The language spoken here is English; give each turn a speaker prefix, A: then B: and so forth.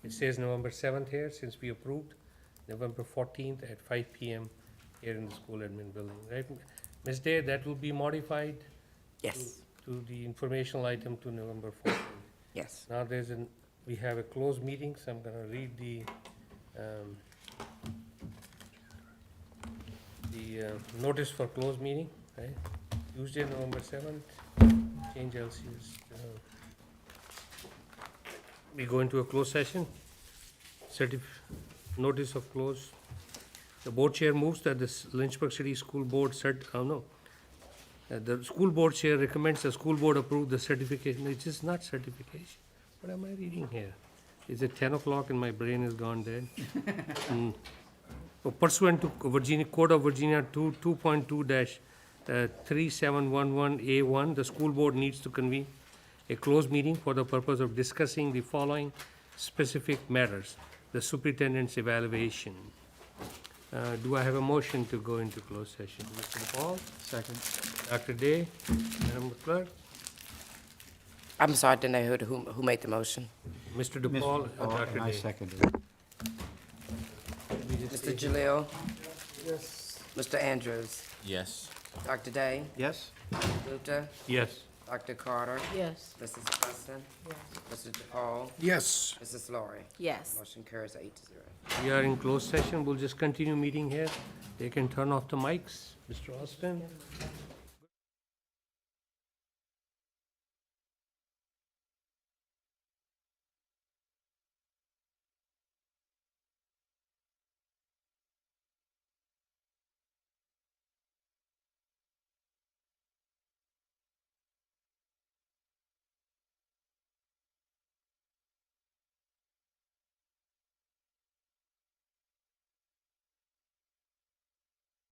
A: It says November seventh here, since we approved November fourteenth at five P M here in the school admin building, right? Ms. Day, that will be modified
B: Yes,
A: to the informational item to November fourteenth.
B: yes.
A: Now there's an, we have a closed meeting, so I'm gonna read the, um, the, uh, notice for closed meeting, right? Tuesday, November seventh, change LCS. uh, We go into a closed session, certif, notice of close. The board chair moves that the S- Lynchburg City School Board cert, oh no, uh, The school board chair recommends the school board approve the certification, it is not certification. What am I reading here? Is it ten o'clock and my brain is gone dead? Hmm. Oh, Pursuant to Virginia, Code of Virginia two, two point two dash, uh, three seven one one A one, the school board needs to convene a closed meeting for the purpose of discussing the following specific matters. The superintendent's evaluation. Uh, do I have a motion to go into closed session? Mr. Paul?
C: Second.
A: Dr. Day, Madam Clerk,
B: I'm sorry, I didn't know who, who- who made the motion.
A: Mr. DePaul, and
C: Oh,
A: Dr.
C: and I
A: Day.
C: seconded it.
B: Mr. Jalil? Yes. Mr. Andrews?
D: Yes.
B: Dr. Day?
C: Yes?
B: Gupta?
A: Yes.
B: Dr. Carter?
E: Yes.
B: Mrs. Preston? Mr. DePaul?
C: Yes.
B: Mrs. Laurie?
E: Yes.
B: Motion carries eight to zero.
A: We are in closed session, we'll just continue meeting here. They can turn off the mics, Mr. Austin,